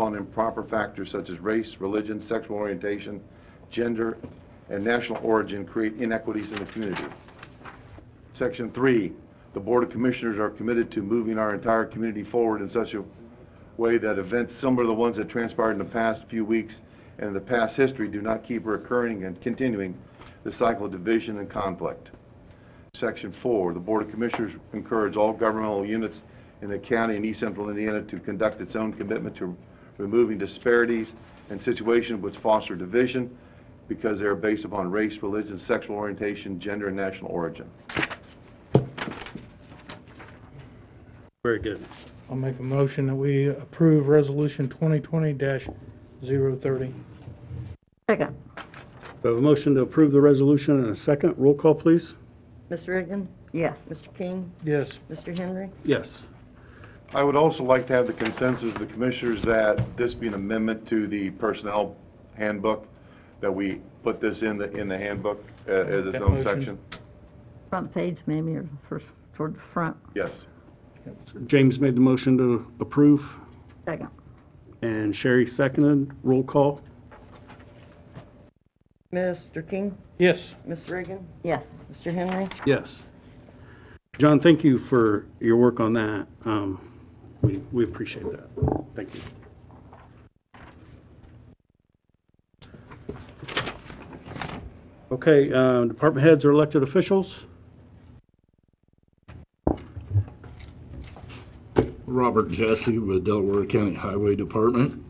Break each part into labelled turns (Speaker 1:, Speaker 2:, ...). Speaker 1: on improper factors such as race, religion, sexual orientation, gender, and national origin create inequities in the community. Section three, the Board of Commissioners are committed to moving our entire community forward in such a way that events similar to the ones that transpired in the past few weeks and in the past history do not keep recurring and continuing the cycle of division and conflict. Section four, the Board of Commissioners encourage all governmental units in the county and East Central Indiana to conduct its own commitment to removing disparities and situations which foster division because they are based upon race, religion, sexual orientation, gender, and national origin.
Speaker 2: Very good.
Speaker 3: I'll make a motion that we approve Resolution 2020-030.
Speaker 4: Second.
Speaker 2: We have a motion to approve the resolution and a second. Roll call, please.
Speaker 5: Ms. Reagan,
Speaker 4: Yes.
Speaker 5: Mr. King,
Speaker 3: Yes.
Speaker 5: Mr. Henry,
Speaker 2: Yes.
Speaker 1: I would also like to have the consensus of the commissioners that this be an amendment to the personnel handbook, that we put this in the, in the handbook uh, as its
Speaker 3: That
Speaker 1: own
Speaker 3: motion.
Speaker 1: section.
Speaker 4: Front page, maybe, or first, toward the front.
Speaker 1: Yes.
Speaker 2: James made the motion to approve,
Speaker 4: Second.
Speaker 2: and Sherry seconded. Roll call.
Speaker 5: Mr. King,
Speaker 3: Yes.
Speaker 5: Ms. Reagan,
Speaker 4: Yes.
Speaker 5: Mr. Henry,
Speaker 2: Yes. John, thank you for your work on that. Um, We we appreciate that. Thank you. Okay, uh, department heads or elected officials?
Speaker 6: Robert Jesse with Delaware County Highway Department.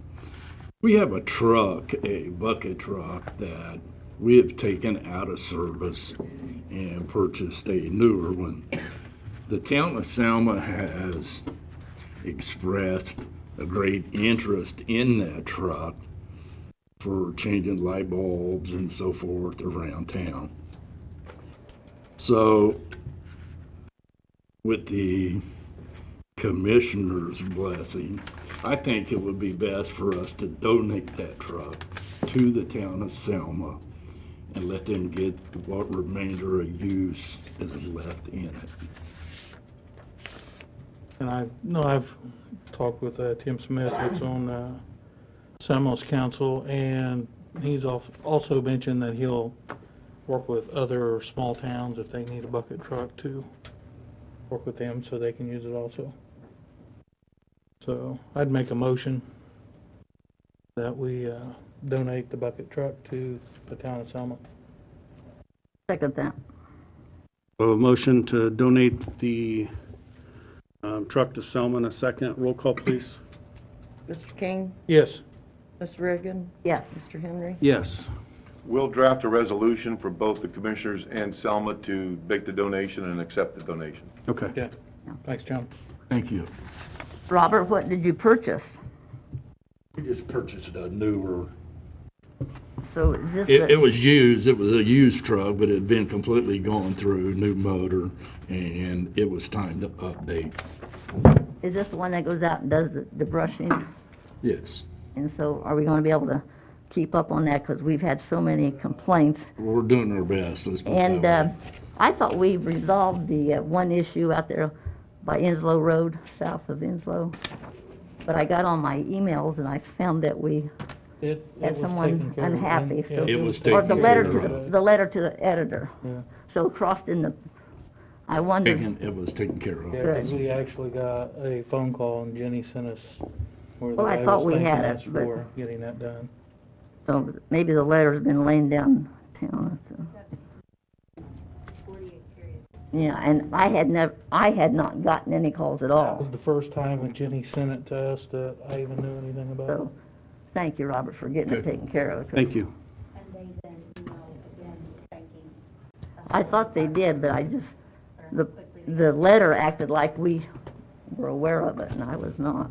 Speaker 6: We have a truck, a bucket truck that we have taken out of service and purchased a newer one. The town of Selma has expressed a great interest in that truck for changing light bulbs and so forth around town. So with the commissioner's blessing, I think it would be best for us to donate that truck to the town of Selma and let them get what remainder of use is left in it.
Speaker 3: And I, no, I've talked with uh, Tim Smith, who's on uh, Samos Council, and he's al- also mentioned that he'll work with other small towns if they need a bucket truck to work with them so they can use it also. So I'd make a motion that we uh, donate the bucket truck to the town of Selma.
Speaker 4: Second that.
Speaker 2: We have A motion to donate the um, truck to Selma in a second. Roll call, please.
Speaker 5: Mr. King,
Speaker 3: Yes.
Speaker 5: Ms. Reagan,
Speaker 4: Yes.
Speaker 5: Mr. Henry,
Speaker 2: Yes.
Speaker 1: We'll draft a resolution for both the commissioners and Selma to make the donation and accept the donation.
Speaker 2: Okay.
Speaker 3: Yeah. Thanks, John.
Speaker 6: Thank you.
Speaker 4: Robert, what did you purchase?
Speaker 6: We just purchased a newer.
Speaker 4: So is this,
Speaker 6: It, it
Speaker 4: the-
Speaker 6: was used, it was a used truck, but it had been completely gone through, new motor, and it was time to update.
Speaker 4: is this the one that goes out and does the the brushing?
Speaker 6: Yes.
Speaker 4: And so are we going to be able to keep up on that? Because we've had so many complaints.
Speaker 6: We're doing our best, let's put it that
Speaker 4: And uh,
Speaker 6: way.
Speaker 4: I thought we resolved the uh, one issue out there by Enslow Road, south of Enslow. But I got on my emails and I found that we
Speaker 3: It it
Speaker 4: had
Speaker 3: was
Speaker 4: someone
Speaker 3: taken care of,
Speaker 4: unhappy.
Speaker 3: and-
Speaker 4: so-
Speaker 3: yeah.
Speaker 6: It was
Speaker 4: Or the
Speaker 6: taken
Speaker 4: letter
Speaker 6: care
Speaker 4: to, the the letter to the editor. So crossed in the, I wondered,
Speaker 6: Taken, it was taken care of.
Speaker 3: Yeah, 'cause we actually got a phone call and Jenny sent us where the
Speaker 4: Well, I
Speaker 3: guy
Speaker 4: thought
Speaker 3: was
Speaker 4: we
Speaker 3: thanking
Speaker 4: had it,
Speaker 3: us
Speaker 4: but-
Speaker 3: for getting that done.
Speaker 4: so maybe the letter's been laying down town. so. Yeah, and I had never, I had not gotten any calls at
Speaker 3: It was
Speaker 4: all.
Speaker 3: the first time when Jenny sent it to us that I even knew anything about it.
Speaker 4: So, thank you, Robert, for getting it taken care of. 'cause
Speaker 2: Thank you.
Speaker 7: And they then, you know, again, thanking
Speaker 4: I thought they did, but I just, the, the letter acted like we were aware of it, and I was not.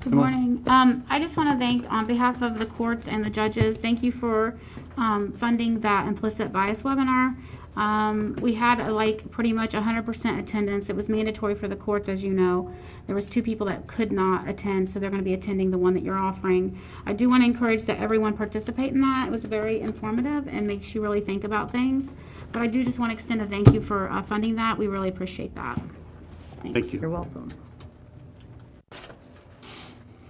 Speaker 7: Good morning. Um, I just want to thank, on behalf of the courts and the judges, thank you for um, funding that implicit bias webinar. Um, We had uh, like pretty much 100% attendance. It was mandatory for the courts, as you know. There was two people that could not attend, so they're going to be attending the one that you're offering. I do want to encourage that everyone participate in that. It was very informative and makes you really think about things. But I do just want to extend a thank you for uh, funding that. We really appreciate that. Thanks.
Speaker 2: you.
Speaker 4: You're welcome.